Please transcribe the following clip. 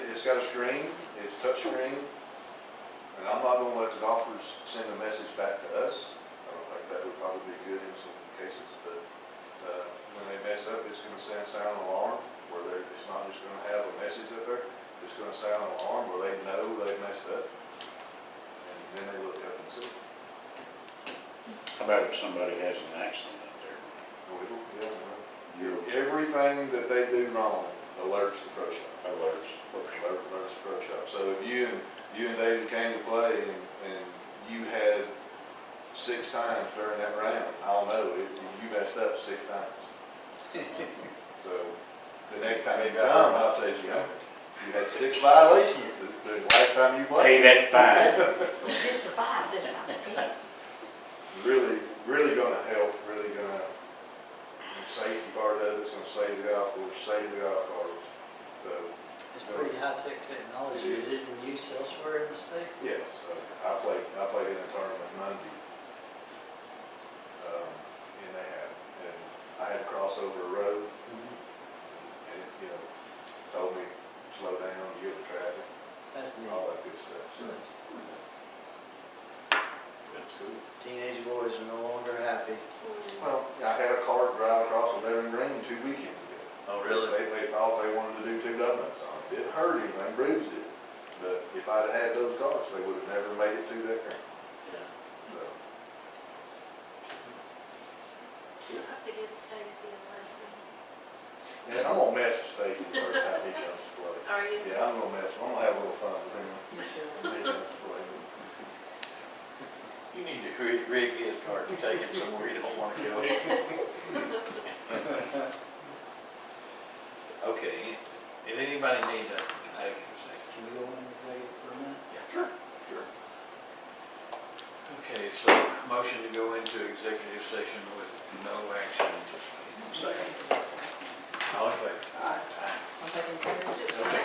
It's got a screen, it's touchscreen, and I'm not gonna let the golfers send a message back to us. I don't think that would probably be good in some cases, but, uh, when they mess up, it's gonna send sound alarm, where they're, it's not just gonna have a message up there, it's gonna sound alarm where they know they messed up. And then they look up and see, How about if somebody has an accident out there? oh, we don't, yeah, well, You're everything that they do wrong alerts the pro shop. alert. Robert Burns Pro Shop. So if you and, you and David came to play and, and you had six times during that round, I'll know, it- you messed up six times. So the next time you come, I'll say, you know, you had six violations the, the last time you Pay played. that fine. We shoot for five this time. Really, really gonna help, really gonna, the safety part of it's gonna save the golf course, save the golf carts. So, It's pretty high-tech technology. Is it in use elsewhere in the state? Yes, I played, I played in a tournament Monday. Um, And they had, and I had to cross over a road and, Mm-hmm. it, you know, told me, slow down, you have traffic, That's neat. all that good stuff, so. That's cool. Teenage boys are no longer happy. Well, I had a car drive across eleven green two weekends ago. Oh, They, they thought they wanted to do two donuts on it. It hurt him, they bruised it. But if I'd had those cars, they would have never made it through that green. So, I'll have to give Stacy a lesson. And I'm gonna mess with Stacy the first time he comes to play. Are you? Yeah, I'm gonna mess, I'm gonna have a little fun with him. when he comes to play. You need to rig, rig his card and take it somewhere you don't wanna go. Okay, did anybody need a, an executive session? Can we go in and take it for a minute? Yeah, sure. Sure. Okay, so motion to go into executive session with no action anticipated. Second.